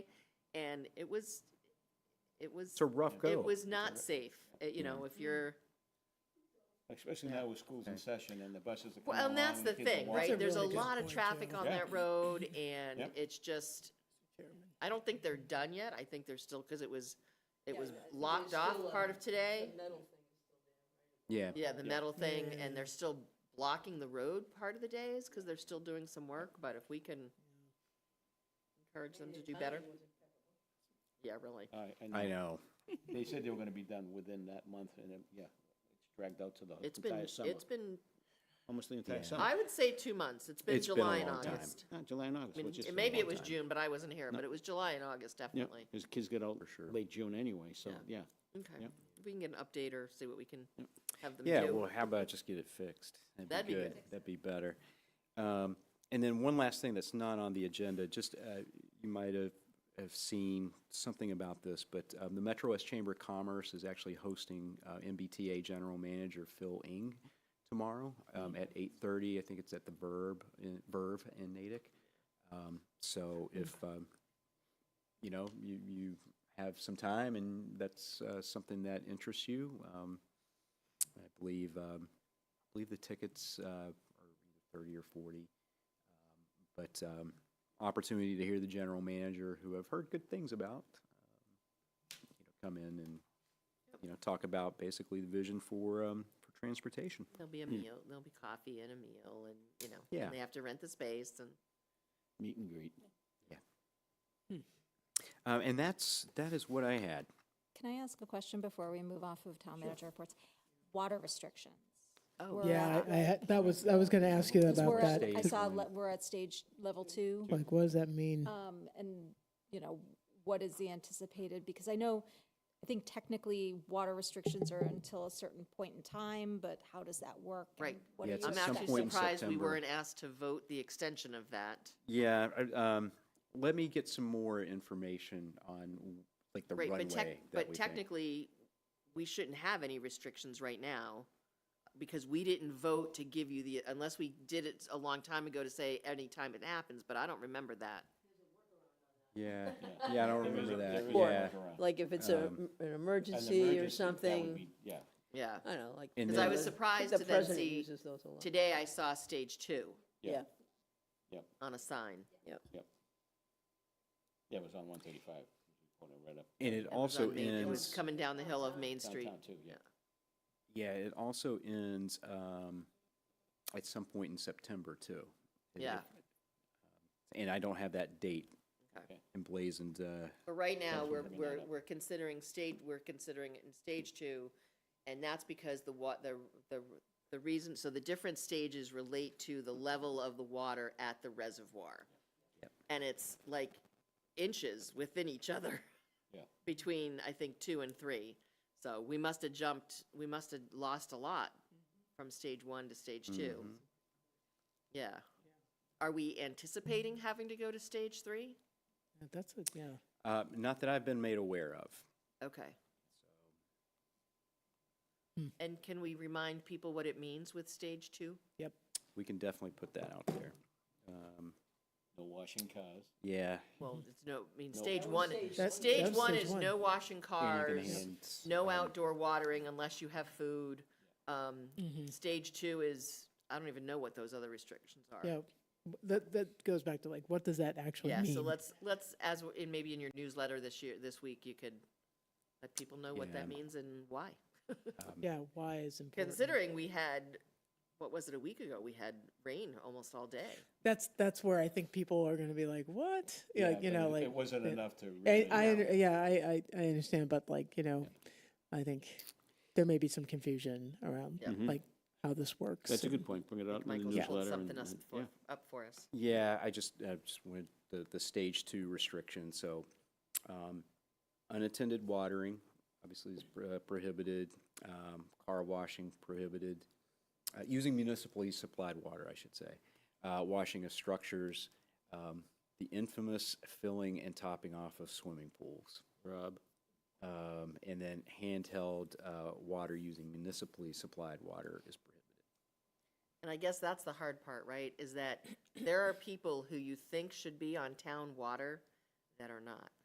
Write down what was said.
and it was, it was. It's a rough go. It was not safe, uh, you know, if you're, Especially now with school's in session and the buses are coming well, and along. that's the kids are thing, walking. right? There's a really good lot of point, traffic Jim. on Yeah. that road and Yep. it's just, I don't think they're done yet. I think they're still, because it was, it was locked off part of today. Yeah. Yeah, the metal thing, and they're still blocking the road part of the days, because they're still doing some work, but if we can encourage them to do better. Yeah, really. All right, and I know. They said they were gonna be done within that month and then, yeah, it's dragged out to the It's been, entire summer, it's been, almost the entire Yeah. summer. I would say two months. It's been It's been a July and long time. August. Not July and I August, mean, which is. it- a maybe long it was time. June, but I wasn't here, but it was July and August, Yeah, definitely. because kids get out late June anyway, so, yeah. Okay. Yep. If we can get an update or see what we can have them do. Yeah, well, how about just get it fixed? That'd be good. That'd be better. Um, And then one last thing that's not on the agenda, just, uh, you might have, have seen something about this, but um, the Metro West Chamber of Commerce is actually hosting uh, MBTA General Manager Phil Ing tomorrow um, at 8:30. I think it's at the Verb, in- Verve in Natick. Um, So if, um, you know, you, you have some time and that's uh, something that interests you, um, I believe, um, I believe the tickets uh, are either 30 or 40. Um, But um, opportunity to hear the general manager, who I've heard good things about, um, you know, come in and, you know, talk about basically the vision for, um, for transportation. There'll be a meal, there'll be coffee and a meal, and, you know, hmm. Yeah. and they have to rent the space, and Meet and greet. Uh, And that's, that is what I had. Can I ask a question before we move off of town manager reports? Water restrictions. Oh. We're Yeah, at- I, I, had- that was, I was gonna ask you 'cause we're about at- that. I Stage saw, one. le- we're at stage level two, Like, what does that mean? um, and, you know, what is the anticipated? Because I know, I think technically water restrictions are until a certain point in time, but how does that work? and Right. what do Yeah, it's you I'm at some expect? actually point in surprised we September. weren't asked to vote the extension of that. Yeah, I- um, let me get some more information on, like, the Right, runway but that tech, we but think. technically, we shouldn't have any restrictions right now, because we didn't vote to give you the, unless we did it a long time ago to say any time it happens, but I don't remember that. Yeah, yeah, I don't There is a- remember there that, is a yeah. workaround. Like if it's a, Um, an An emergency or emergency, that would something, be- Yeah, Yeah, I don't know, like. And because I then- was the- surprised the to then president see, uses those a lot. today I saw stage two Yeah. Yeah, on a sign. yeah, it was on one thirty-five, right up And it It was also on Main- It was ends, coming down the hill of Main Street. downtown too, yeah. yeah, it also ends, um, at some point in September too. It- Yeah. it- And I don't have that date Okay. emblazoned, uh, But right now, Thanks for we're, bringing that we're, up. we're considering stage, we're considering it in stage two, and that's because the wa, the, the, the reason, so the different stages relate to the level of the water at the reservoir. And it's like inches within each other. Yeah. Between, I think, two and three. So we must have jumped, we must have lost a lot from stage one to stage two. Yeah. Are we anticipating having to go to stage three? That's, a- yeah. uh, not that I've been made aware of. Okay. Hmm. And can we remind people what it means with stage two? We can definitely put that out there. Um, No washing cars. yeah. Well, it's no, I mean, No. stage one, That's- stage that's one Mm-hmm. stage is one. no washing anything cars, hands, no um, outdoor watering unless you have food. Um, Mm-hmm. stage two is, I don't even know what those other restrictions are. Yeah, w- that, that goes back to like, what does that actually Yeah, mean? so let's, let's, as, w- in maybe in your newsletter this year, this week, you could let people know what that Yeah. means and why. Yeah, why is important? Considering we had, what was it, a week ago, we had rain almost all day. That's, that's where I think people are gonna be like, what? Yeah, Like, you but know, it- like. It wasn't yeah. enough to I, really. I, under- yeah, I, I, I understand, but like, you know, I think there may be some confusion around Yeah. like how this works. Mm-hmm. That's a good point, bring it out in the Michael's pulled newsletter. something and- us and- for, yeah. up for us. Yeah, I just, I just wanted the, the stage two restriction, so, um, unattended watering, obviously is pro- prohibited, um, car washing prohibited, uh, using municipally supplied water, I should say, uh, washing of structures, um, the infamous filling and topping off of swimming pools. Rob, Um, and then handheld, uh, water using municipally supplied water is prohibited. And I guess that's the hard part, right, is that there are people who you think should be on town water that are not.